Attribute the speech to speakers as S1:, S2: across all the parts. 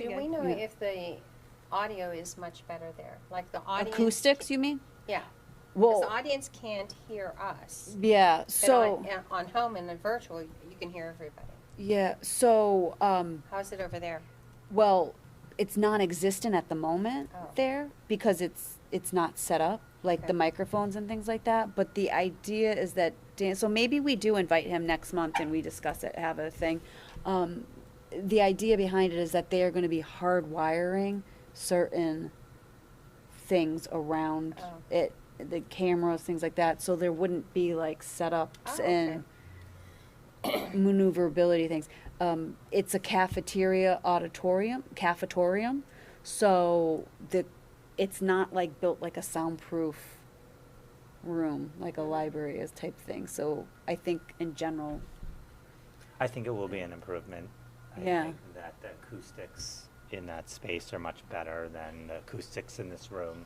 S1: know
S2: You-
S1: if the audio is much better there, like the audience.
S2: Acoustics, you mean?
S1: Yeah, because the
S2: Well,
S1: audience can't hear us.
S2: yeah,
S1: But on-
S2: so,
S1: yeah, On home and in virtual, you can hear everybody.
S2: yeah, so, um,
S1: How's it over there?
S2: well, it's non-existent at the moment
S1: Oh.
S2: there because it's, it's not set up, like
S1: Okay.
S2: the microphones and things like that. But the idea is that Dan, so maybe we do invite him next month and we discuss it, have a thing. Um, the idea behind it is that they are gonna be hardwiring certain things around
S1: Oh.
S2: it, the cameras, things like that, so there wouldn't be like setups
S1: Oh,
S2: and maneuverability things. Um, it's a cafeteria auditorium, cafetorium, so the, it's not like built like a soundproof room, like a library is type thing, so I think in general,
S3: I think it will be an improvement. I
S2: Yeah.
S3: think that the acoustics in that space are much better than the acoustics in this room.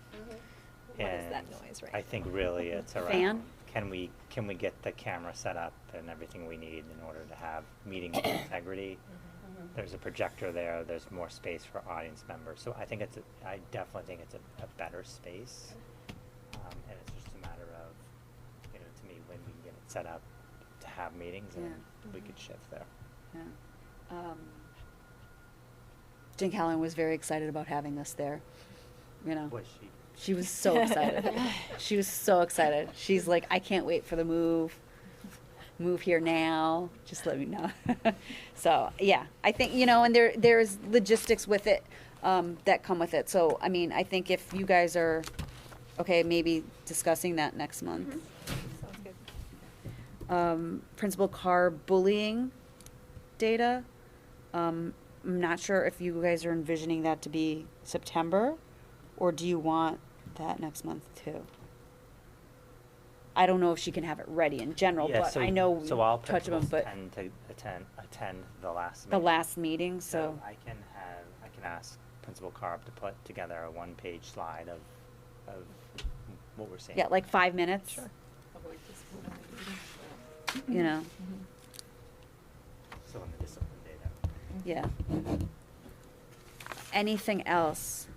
S4: What is that
S3: And
S4: noise right
S3: I think really it's around.
S2: Fan?
S3: Can we can we get the camera set up and everything we need in order to have meeting with integrity?
S1: Mm-hmm.
S3: There's a projector there. There's more space for audience members. So I think it's a, I definitely think it's a, a better space. Um, and it's just a matter of, you know, to me, when we can get it set up to have meetings and
S2: Yeah.
S3: we could shift there.
S2: yeah. Um, Jen Callan was very excited about having us there, you know.
S3: Was she?
S2: She was so excited. she was so excited. She's like, I can't wait for the move. Move here now. Just let me know. so yeah, I think you know, and there there's logistics with it um, that come with it. So I mean, I think if you guys are okay, maybe discussing that next month.
S1: Mm-hmm.
S4: Sounds good.
S2: Um, Principal Carr bullying data. Um, I'm not sure if you guys are envisioning that to be September, or do you want that next month too? I don't know if she can have it ready in general,
S3: Yeah,
S2: but
S3: so-
S2: I know we
S3: So all
S2: touch them,
S3: principals
S2: but
S3: tend to attend, attend the last.
S2: the
S3: meeting.
S2: last meeting, so,
S3: I can have, I can ask Principal Carp to put together a one-page slide of, of what we're seeing.
S2: yeah, like five minutes.
S3: Sure.
S2: You know,
S5: Mm-hmm.
S3: So on the discipline data.
S2: yeah. Anything else?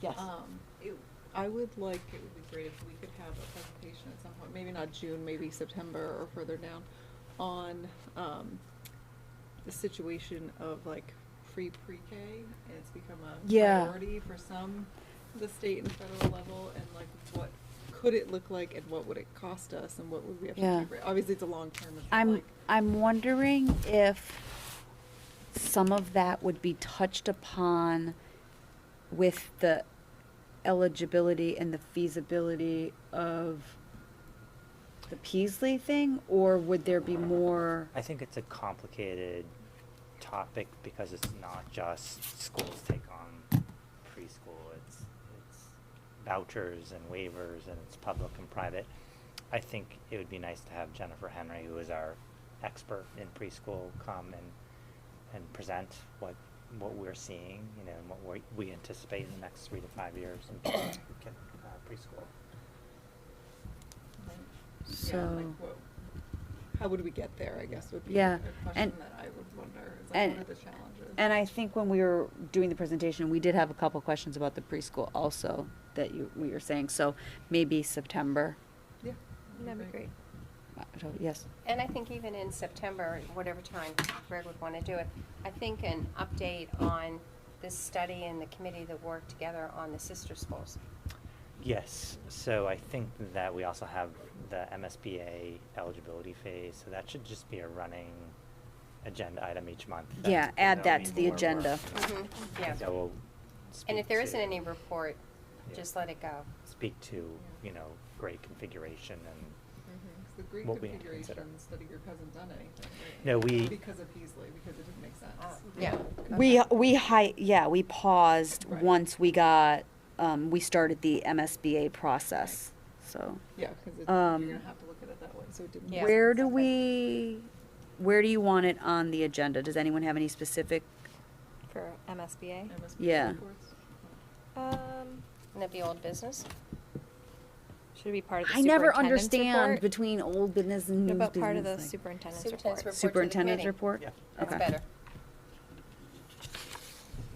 S2: Yes.
S5: Um, it- I would like, it would be great if we could have a presentation at some point, maybe not June, maybe September or further down, on, um, the situation of like free pre-K, and it's become a
S2: Yeah.
S5: priority for some, the state and federal level, and like what could it look like and what would it cost us and what would we have
S2: Yeah.
S5: to do? for- Obviously, it's a long term, it's not
S2: I'm
S5: like,
S2: I'm wondering if some of that would be touched upon with the eligibility and the feasibility of the Peasley thing, or would there be more?
S3: I think it's a complicated topic because it's not just schools take on preschool. It's it's vouchers and waivers and it's public and private. I think it would be nice to have Jennifer Henry, who is our expert in preschool, come and and present what what we're seeing, you know, and what we we anticipate in the next three to five years in uh, preschool.
S5: like, yeah,
S2: So,
S5: like what, how would we get there, I guess, would be
S2: Yeah,
S5: a
S2: and-
S5: question that I would wonder, is like,
S2: and-
S5: what are the challenges?
S2: and I think when we were doing the presentation, we did have a couple questions about the preschool also that you we were saying. So maybe September.
S5: Yeah.
S4: That'd be great.
S2: Uh, so- Yes.
S1: And I think even in September, whatever time Greg would want to do it, I think an update on this study and the committee that worked together on the sister schools.
S3: Yes, so I think that we also have the MSBA eligibility phase, so that should just be a running agenda item each month. that,
S2: Yeah,
S3: you
S2: add
S3: know,
S2: that
S3: we
S2: to the
S3: more work.
S2: agenda.
S1: Mhm,
S2: Mm-hmm.
S1: yeah.
S3: That will
S1: And
S3: speak
S1: if there isn't
S3: to-
S1: any report,
S3: Yeah.
S1: just let it go.
S3: Speak to, you know, grade configuration and,
S5: Because the Greek
S3: what we consider.
S5: configuration study group hasn't done anything. right?
S3: No, we-
S5: Because of Peasley, because it didn't make
S4: Ah,
S1: Uh,
S5: sense.
S1: Yeah.
S2: We, we hi, yeah, we paused
S5: Right.
S2: once we got, um, we started the MSBA process, so.
S5: Yeah, because you're
S2: Um,
S5: gonna have to look at it that way, so it didn't.
S1: Yeah.
S5: make
S2: Where do
S5: sense.
S2: we, where do you want it on the agenda? Does anyone have any specific?
S4: For MSBA?
S5: MSBA
S2: Yeah.
S5: reports?
S4: Um,
S1: And that'd be old business?
S4: should it be part of the
S2: I never
S4: superintendend's
S2: understand
S4: report?
S2: between old business and
S4: What
S2: new business.
S4: about part of the
S2: like-
S4: superintendent's
S1: Superintendent's
S4: report?
S1: report to the
S2: Superintendent's
S1: committee.
S2: report?
S3: Yeah.
S1: That's
S2: Okay.
S1: better.